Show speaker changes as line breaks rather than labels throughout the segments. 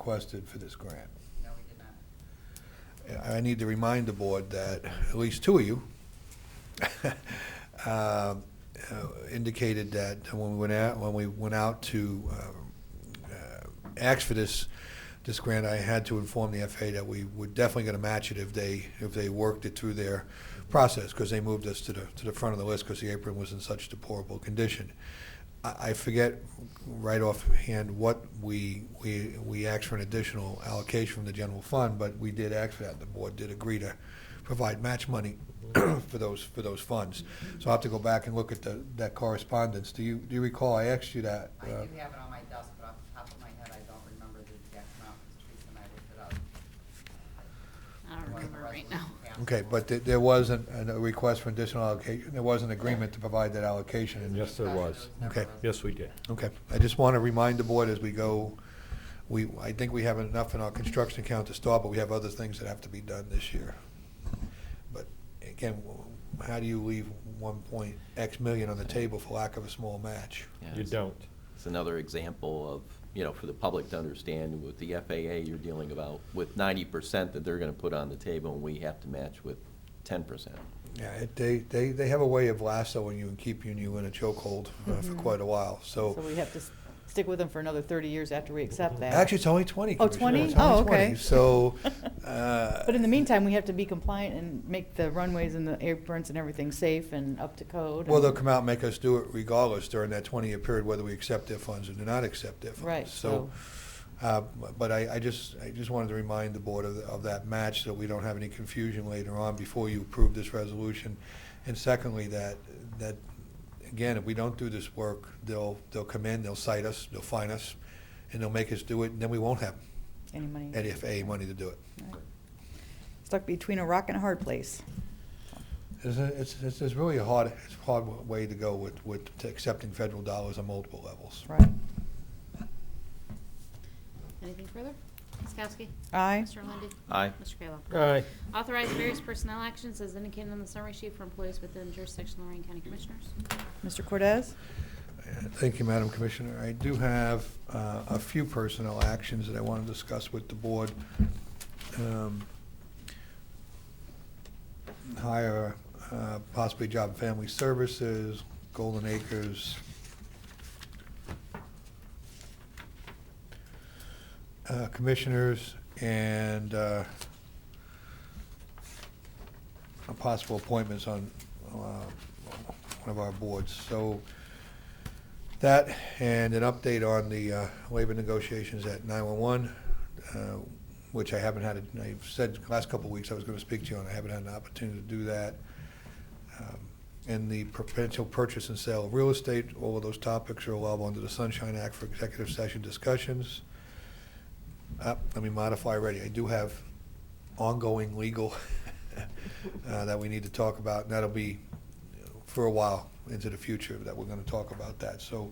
requested for this grant.
No, we did not.
I need to remind the board that at least two of you um, uh, indicated that when we went out, when we went out to um, uh, ask for this, this grant, I had to inform the FAA that we were definitely going to match it if they, if they worked it through their process, because they moved us to the, to the front of the list because the apron was in such deplorable condition. I I forget right offhand what we, we, we asked for an additional allocation from the general fund, but we did ask for that. The board did agree to provide match money for those, for those funds. So I'll have to go back and look at the, that correspondence. Do you, do you recall I asked you that?
I
uh,
do have it on my desk, but off the top of my head, I don't remember the exact amount, because Teresa and I looked it up.
I don't
When the
remember right now.
resolution passed.
Okay, but there- there was an- an- a request for additional allocation, there was an agreement to provide that allocation. and-
Yes, there was.
never a
Okay.
Yes, we did.
Okay, I just want to remind the board as we go, we, I think we have enough in our construction account to start, but we have other things that have to be done this year. But again, wh- how do you leave one point X million on the table for lack of a small match?
Yeah,
You
it's-
don't.
It's another example of, you know, for the public to understand with the FAA, you're dealing about with ninety percent that they're gonna put on the table and we have to match with ten percent.
Yeah, it- they, they, they have a way of lassoing you and keeping you in a chokehold uh, for quite a while,
Mm-hmm. So
so.
we have to s- stick with them for another 30 years after we accept that.
Actually, it's only twenty,
Oh,
Commissioner.
20?
It's only
Oh, okay.
20. So, uh.
But in the meantime, we have to be compliant and make the runways and the aprons and everything safe and up to code.
Well,
and-
they'll come out and make us do it regardless during that 20-year period, whether we accept their funds or do not accept their funds.
Right,
So, uh, but I, I just, I just wanted to remind the board of, of that match, so we don't have any confusion later on before you approve this resolution. And secondly, that, that, again, if we don't do this work, they'll, they'll come in, they'll cite us, they'll fine us, and they'll make us do it, and then we won't have
Any money.
any FAA money to do it.
Right. Stuck between a rock and a hard place.
It's, a- it's, it's it's really a hard, it's a hard way to go with, with accepting federal dollars on multiple levels.
Right.
Anything further? Ms. Kowski?
Aye.
Mr. Lundey?
Aye.
Mr. Kayla?
Aye.
Authorize various personnel actions as indicated on the summary sheet for employees within jurisdiction of Lorraine County Commissioners.
Mr. Cortez?
Thank you, Madam Commissioner. I do have uh, a few personnel actions that I want to discuss with the board. Um, Hire, uh, possibly Job and Family Services, Golden Acres. uh, Commissioners and uh, possible appointments on uh, one of our boards. So that and an update on the uh, labor negotiations at 911, uh, which I haven't had, a- I've said the last couple of weeks I was going to speak to you on, I haven't had an opportunity to do that. Um, And the potential purchase and sale of real estate, all of those topics are allowable under the Sunshine Act for executive session discussions. Uh, Let me modify already, I do have ongoing legal uh, that we need to talk about, and that'll be for a while into the future that we're going to talk about that. So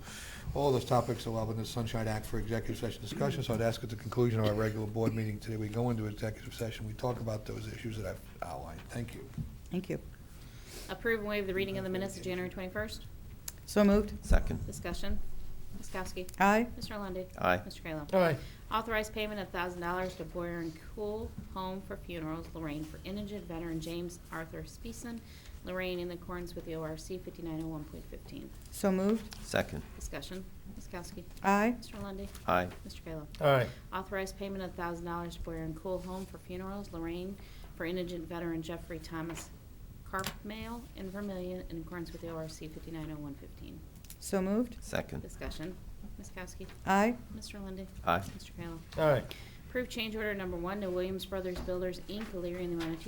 all those topics allowed in the Sunshine Act for executive session discussion. So I'd ask at the conclusion of our regular board meeting today, we go into executive session, we talk about those issues that I've outlined. Thank you.
Thank you.
Approve and waive the reading of the minutes of January 21st.
So moved.
Second?
Discussion. Ms. Kowski?
Aye.
Mr. Lundey?
Aye.
Mr. Kayla?
Aye.
Authorize payment of thousand dollars to Boyer and Cool Home for Funerals Lorraine for indigent veteran James Arthur Speeson, Lorraine in accordance with the ORC fifty-nine oh one point fifteen.
So moved.
Second?
Discussion. Ms. Kowski?
Aye.
Mr. Lundy.
Aye.
Mr. Kayla?
Aye.
Authorize payment of thousand dollars to Boyer and Cool Home for Funerals Lorraine for indigent veteran Jeffrey Thomas Carpmail in Vermillion in accordance with the ORC fifty-nine oh one fifteen.
So moved.
Second?
Discussion. Ms. Kowski?
Aye.
Mr. Lundy.
Aye.
Mr. Kayla?
Aye.
Approve change order number one to Williams Brothers Builders, Inc., Elyria, in the amount of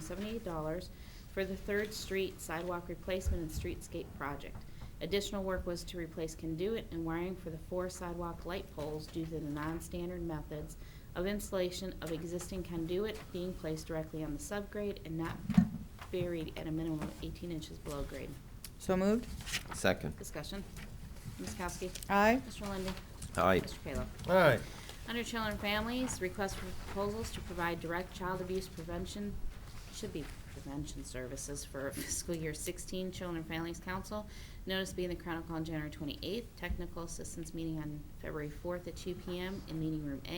$2,578 for the Third Street sidewalk replacement and streetscape project. Additional work was to replace conduit and wiring for the four sidewalk light poles due to the non-standard methods of installation of existing conduit being placed directly on the subgrade and not buried at a minimum of 18 inches below grade.
So moved.
Second?
Discussion. Ms. Kowski.
Aye.
Mr. Lundey.
Aye.
Mr. Kayla.
Aye.
Under Children and Families, request for proposals to provide direct child abuse prevention, should be prevention services for fiscal year 16 Children and Families Council. Notice being the Chronicle on January 28th, technical assistance meeting on February 4th at 2 PM in Meeting Room A.